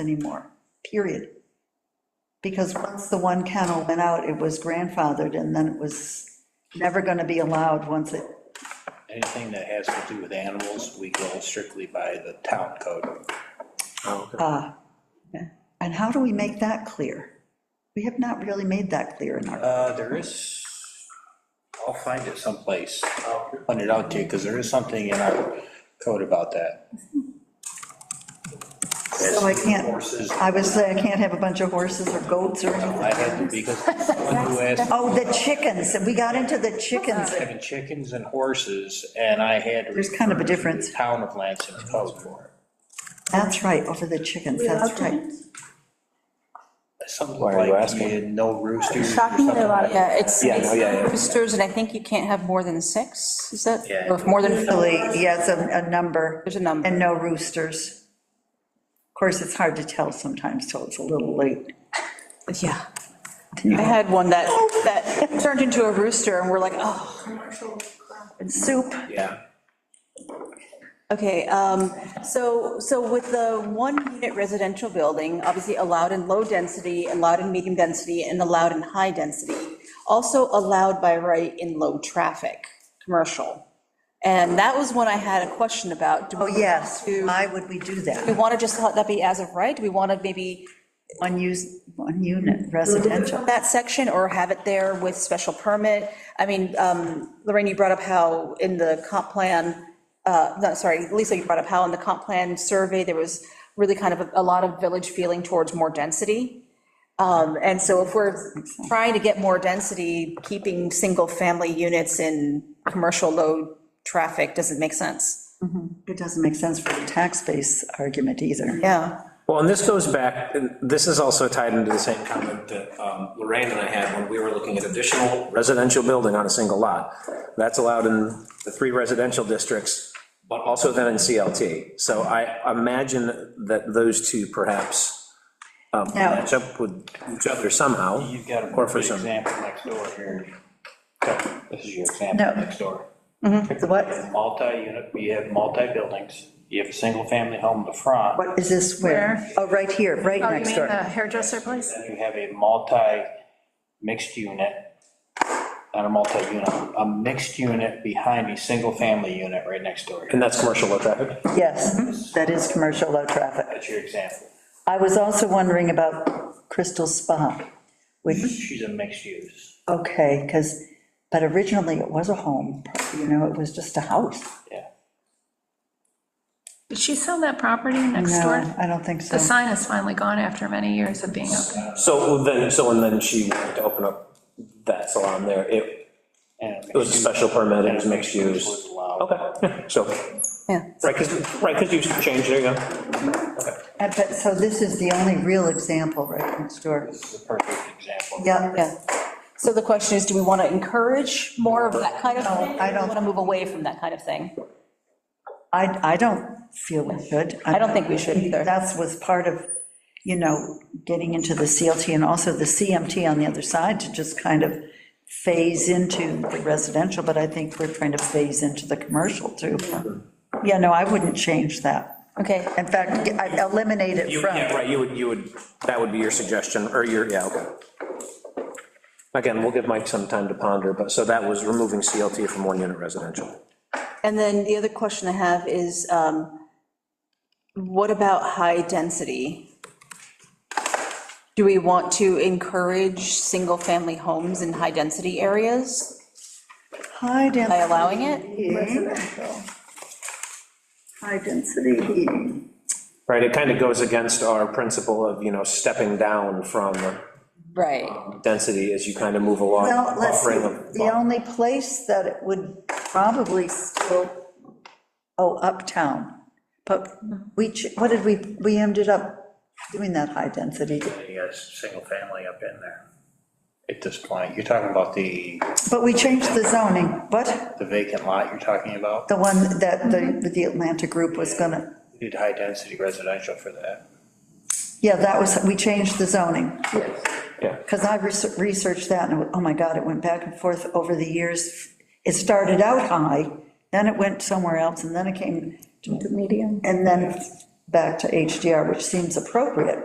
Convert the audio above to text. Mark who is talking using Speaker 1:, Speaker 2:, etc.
Speaker 1: anymore, period. Because once the one kennel went out, it was grandfathered, and then it was never going to be allowed once it,
Speaker 2: Anything that has to do with animals, we go strictly by the town code.
Speaker 1: uh, and how do we make that clear? We have not really made that clear in our,
Speaker 2: Uh, there is, I'll find it someplace, I'll hunt it out to you, because there is something in our code about that.
Speaker 1: so I can't,
Speaker 2: Horses,
Speaker 1: I would say I can't have a bunch of horses or goats or anything.
Speaker 2: I had to, because someone who asked,
Speaker 1: Oh, the chickens, we got into the chickens,
Speaker 2: having chickens and horses, and I had. to
Speaker 1: There's kind of a
Speaker 2: refer to the
Speaker 1: difference.
Speaker 2: Town of Lansing code for
Speaker 1: that's right, over the chickens, that's right.
Speaker 2: it. Something
Speaker 3: Why are you
Speaker 2: like,
Speaker 3: asking?
Speaker 2: you had no roosters or
Speaker 4: Shocking
Speaker 2: something
Speaker 4: that a lot,
Speaker 2: like that.
Speaker 4: yeah, it's
Speaker 3: Yeah, no, yeah, yeah.
Speaker 4: it's roosters, and I think you can't have more than six, is that?
Speaker 2: Yeah.
Speaker 4: Or if more than,
Speaker 1: Usually, yes, a, a number.
Speaker 4: There's a number.
Speaker 1: And no roosters. Of course, it's hard to tell sometimes, so it's a little late.
Speaker 4: yeah. I had one that, that turned into a rooster, and we're like, oh,
Speaker 1: Soup,
Speaker 2: Yeah,
Speaker 4: okay, um, so, so with the one-unit residential building, obviously allowed in low density, allowed in medium density, and allowed in high density, also allowed by right in low traffic, commercial. And that was one I had a question about. Do
Speaker 1: oh,
Speaker 4: we
Speaker 1: yes,
Speaker 4: want to-
Speaker 1: why would we do
Speaker 4: We
Speaker 1: that?
Speaker 4: want to just let that be as of right? Do we want to maybe
Speaker 1: One use, one unit residential.
Speaker 4: that section or have it there with special permit? I mean, um, Lorraine, you brought up how in the comp plan, uh, no, sorry, Lisa, you brought up how in the comp plan survey, there was really kind of a- a lot of village feeling towards more density. Um, And so if we're trying to get more density, keeping single-family units in commercial low traffic doesn't make sense.
Speaker 1: It doesn't make sense for the tax base argument either.
Speaker 4: Yeah.
Speaker 3: Well, and this goes back, and this is also tied into the same comment that um, Lorraine and I had when we were looking at additional residential building on a single lot. That's allowed in the three residential districts, but also then in CLT. So I imagine that those two perhaps um,
Speaker 1: Now-
Speaker 3: match up with each other somehow.
Speaker 2: you've got a
Speaker 3: Or for
Speaker 2: perfect
Speaker 3: some,
Speaker 2: example next door here. This is your
Speaker 1: No.
Speaker 2: example next door.
Speaker 1: The What,
Speaker 2: Multi-unit, you have multi-buildings, you have a single-family home in the front,
Speaker 1: what is this where? Oh, right here, right
Speaker 5: Oh, you
Speaker 1: next
Speaker 5: mean the
Speaker 1: door.
Speaker 5: hairdresser place?
Speaker 2: then you have a multi-mixed unit, not a multi-unit, a mixed unit behind a single-family unit right next door.
Speaker 3: and that's commercial low traffic.
Speaker 1: Yes, that is commercial low traffic.
Speaker 2: That's your example.
Speaker 1: I was also wondering about Crystal Spa, which
Speaker 2: She's a mixed use,
Speaker 1: Okay, because, but originally it was a home, you know, it was just a house.
Speaker 2: yeah.
Speaker 5: Did she sell that property next
Speaker 1: No,
Speaker 5: door?
Speaker 1: I don't think
Speaker 5: The
Speaker 1: so.
Speaker 5: sign is finally gone after many years of being up.
Speaker 3: So then, so and then she wanted to open up that salon there. It
Speaker 2: And
Speaker 3: it was a special permit, it was mixed
Speaker 2: Was
Speaker 3: use.
Speaker 2: allowed.
Speaker 3: Okay, yeah, so
Speaker 4: Yeah.
Speaker 3: Right, because, right, because you changed, there you go.
Speaker 1: Uh, But, so this is the only real example right next door.
Speaker 2: This is a perfect example.
Speaker 1: Yeah,
Speaker 4: Yeah. So the question is, do we want to encourage more of that kind of thing?
Speaker 1: I don't-
Speaker 4: Want to move away from that kind of thing?
Speaker 1: I, I don't feel we should.
Speaker 4: I don't think we should either.
Speaker 1: That was part of, you know, getting into the CLT and also the CMT on the other side to just kind of phase into the residential, but I think we're trying to phase into the commercial too. Yeah, no, I wouldn't change that.
Speaker 4: Okay,
Speaker 1: In fact, I'd eliminate it
Speaker 3: You,
Speaker 1: from.
Speaker 3: yeah, right, you would, you would, that would be your suggestion, or your, yeah, okay. Again, we'll give Mike some time to ponder, but, so that was removing CLT from one-unit residential.
Speaker 4: and then the other question I have is, um, what about high density? Do we want to encourage single-family homes in high-density areas
Speaker 1: High
Speaker 4: by
Speaker 1: density.
Speaker 4: allowing it?
Speaker 1: High density heating.
Speaker 3: Right, it kind of goes against our principle of, you know, stepping down from um,
Speaker 4: Right.
Speaker 3: density as you kind of move along.
Speaker 1: Well, let's,
Speaker 3: buffering of-
Speaker 1: the only place that it would probably still, oh, uptown. But we, ch- what did we, we ended up doing that high density,
Speaker 2: You got a single family up in there. At this point, you're talking about the,
Speaker 1: but we changed the zoning, what?
Speaker 2: the vacant lot you're talking about?
Speaker 1: The one that the, the Atlanta group was gonna,
Speaker 2: We Did high-density residential for that.
Speaker 1: yeah, that was, we changed the zoning.
Speaker 3: Yeah.
Speaker 1: Because I reser- researched that, and, it wa- oh my God, it went back and forth over the years. It started out high, then it went somewhere else, and then it came. To medium. And then back to HDR, which seems appropriate,